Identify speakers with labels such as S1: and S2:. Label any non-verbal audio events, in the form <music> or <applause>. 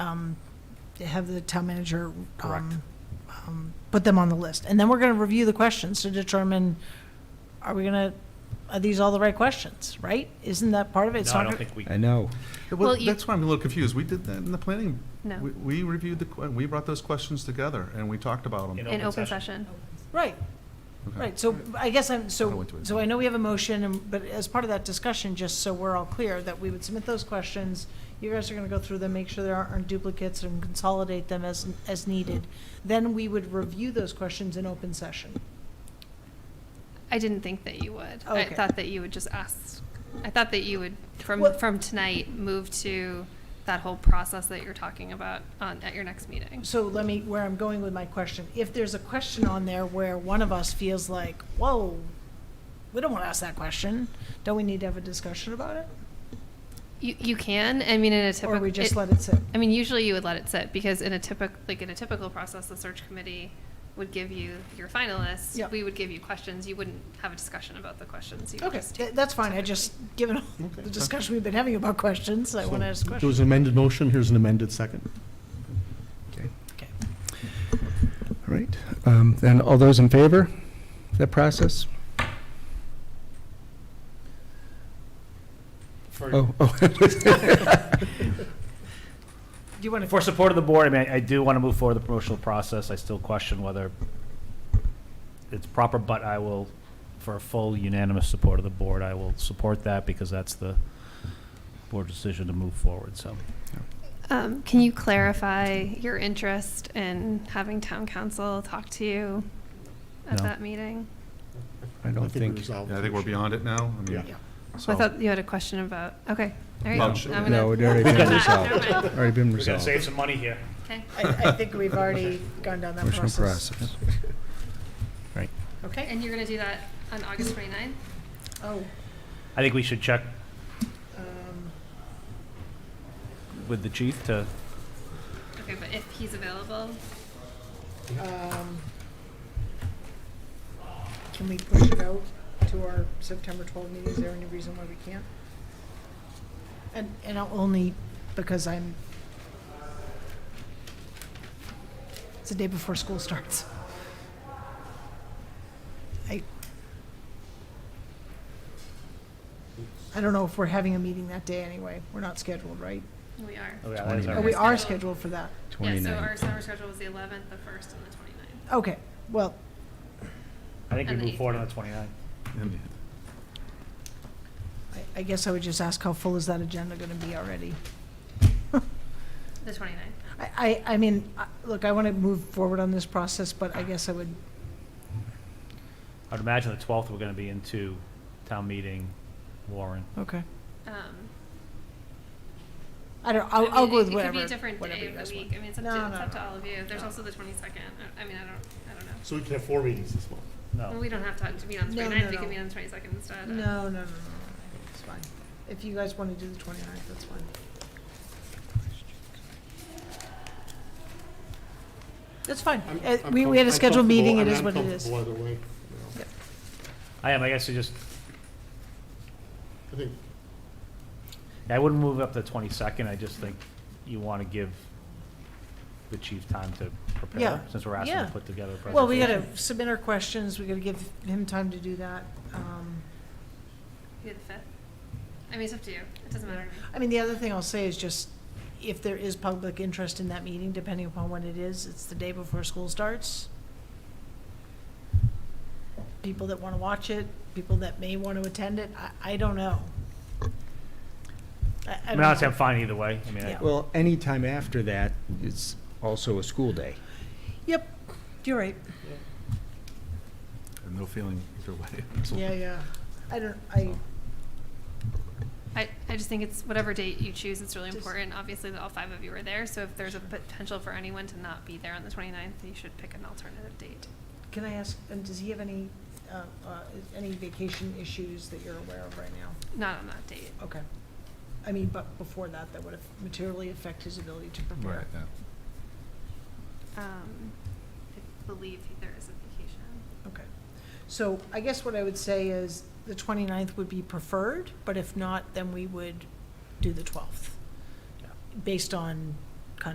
S1: um, have the town manager.
S2: Correct.
S1: um, um, Put them on the list. And then we're going to review the questions to determine, are we going to, are these all the right questions, right? Isn't that part of it? It's
S2: No, I
S1: not
S2: don't
S1: gonna-
S2: think we,
S3: I know.
S4: Well,
S5: Well,
S4: you-
S5: that's why I'm a little confused. We did that in the planning.
S4: No.
S5: we- We reviewed the, que- we brought those questions together and we talked about
S2: In
S5: them.
S2: a-
S4: in
S2: open
S4: open
S2: session.
S4: session.
S1: Right,
S5: Okay.
S1: right. So I guess I'm,
S5: I
S1: so,
S5: went to it.
S1: so I know we have a motion, and- but as part of that discussion, just so we're all clear, that we would submit those questions. You guys are going to go through them, make sure there aren't duplicates and consolidate them as, as needed.
S2: Mm-hmm.
S1: Then we would review those questions in open session.
S4: I didn't think that you would. I
S1: Oh, Okay.
S4: thought that you would just ask, I thought that you would, from,
S1: Well-
S4: from tonight, move to that whole process that you're talking about on, at your next meeting.
S1: So let me, where I'm going with my question, if there's a question on there where one of us feels like, whoa, we don't want to ask that question, don't we need to have a discussion about it?
S4: You, you can, I mean, in a typical.
S1: Or we just let it sit?
S4: I mean, usually you would let it sit because in a typical, like in a typical process, the search committee would give you your finalists.
S1: Yeah.
S4: We would give you questions. You wouldn't have a discussion about the questions. You would
S1: Okay,
S4: just
S1: tha-
S4: take-
S1: that's fine, I just, given all
S6: Okay.
S1: the discussion we've been having about questions, I want to ask a
S6: There was
S1: question.
S6: an amended motion, here's an amended second.
S3: Okay.
S1: Okay.
S3: All right. Um, Then all those in favor of that process?
S2: for,
S3: Oh, <laughs> oh.
S1: Do you want
S2: for
S1: to,
S2: support of the board, I mean, I do want to move forward the promotional process. I still question whether it's proper, but I will, for full unanimous support of the board, I will support that because that's the board decision to move forward, so.
S4: Um, can you clarify your interest in having town council talk to you at
S2: No.
S4: that meeting?
S3: I don't
S6: we
S3: think,
S6: resolved
S5: Yeah, I
S6: the
S5: think we're
S6: issue.
S5: beyond it now. I mean,
S6: Yeah.
S4: I
S5: so-
S4: thought you had a question about, okay, all right.
S5: No,
S4: I'm
S5: sure.
S4: gonna-
S3: no, it already been
S2: Never
S3: resolved.
S4: mind.
S3: Already been resolved.
S2: some money here.
S4: Okay.
S1: I, I think we've already gone down that
S3: Motion
S1: process.
S3: process.
S1: Okay?
S4: And you're gonna do that on August 29th?
S1: Oh,
S2: I think we should check
S1: um,
S2: with the chief to,
S4: Okay, but if he's available,
S1: um, can we push it out to our September 12 meeting? Is there any reason why we can't? And, and I'll only because I'm, it's the day before school starts. I, I don't know if we're having a meeting that day anyway. We're not scheduled, right?
S4: we are.
S2: Oh, yeah, that is
S3: Twenty.
S2: our-
S1: Oh, we are scheduled for that.
S4: Yeah, so our
S3: 29.
S4: summer schedule was the 11th, the 1st, and the 29th.
S1: Okay, well,
S2: I think we
S4: And the
S2: move forward on
S4: eighth.
S2: the 29th.
S5: And-
S1: I, I guess I would just ask how full is that agenda gonna be already?
S4: The 29th.
S1: I, I, I mean, I- look, I wanna move forward on this process, but I guess I would,
S2: I'd imagine the 12th, we're going to be into town meeting, Warren.
S1: okay.
S4: Um,
S1: I don't,
S4: I
S1: I'll,
S4: mean,
S1: I'll go
S4: it-
S1: with
S4: It could be
S1: whatever,
S4: a different
S1: whatever
S4: day
S1: you
S4: of
S1: guys
S4: the
S1: want.
S4: week. I mean, it's up
S1: No,
S4: to, it's
S1: no,
S4: up to
S1: no.
S4: all of you. There's
S1: No.
S4: also the 22nd. I I mean, I don't, I don't know.
S6: So we can have four meetings this month.
S4: Well,
S2: No.
S4: we don't have time to meet on the
S1: No,
S4: 29th.
S1: no,
S4: We can
S1: no.
S4: meet on the 22nd instead.
S1: No, no, no, no, no, it's fine. If you guys wanna do the 29th, that's fine. That's fine.
S6: I'm-
S1: Uh,
S6: I'm
S1: We,
S6: com-
S1: we had a
S6: I'm
S1: scheduled meeting, it
S6: comfortable-
S1: is
S6: I'm
S1: what it is.
S6: comfortable either way, you know.
S1: Yep.
S2: I am, I guess I just,
S6: I think
S2: I wouldn't move up to the 22nd. I just think you want to give the chief time to prepare,
S1: Yeah,
S2: since we're asking
S1: yeah.
S2: to put together a presentation.
S1: Well, we gotta submit our questions, we gotta give him time to do that, um.
S4: Maybe the 5th. I mean, it's up to you. It doesn't matter to me.
S1: I mean, the other thing I'll say is just, if there is public interest in that meeting, depending upon when it is, it's the day before school starts. People that want to watch it, people that may want to attend it, I, I don't know. I- I
S2: I
S1: don't
S2: mean, honestly,
S1: know.
S2: I'm fine either way. I mean, I-
S1: Yeah.
S3: Well, any time after that is also a school day.
S1: Yep, you're right.
S5: I have no feeling either way.
S1: Yeah, yeah. I don't, I,
S4: I, I just think it's whatever date you choose, it's really
S1: Just-
S4: important. Obviously, that all five of you are there, so if there's a potential for anyone to not be there on the 29th, you should pick an alternative date.
S1: can I ask, um, does he have any, uh, uh, any vacation issues that you're aware of right now?
S4: Not on that date.
S1: Okay. I mean, but before that, that would have materially affect his ability to prepare.
S5: Right, yeah.
S4: Um, I believe there is a vacation.
S1: Okay. So I guess what I would say is the 29th would be preferred, but if not, then we would do the 12th,
S2: Yeah.
S1: based on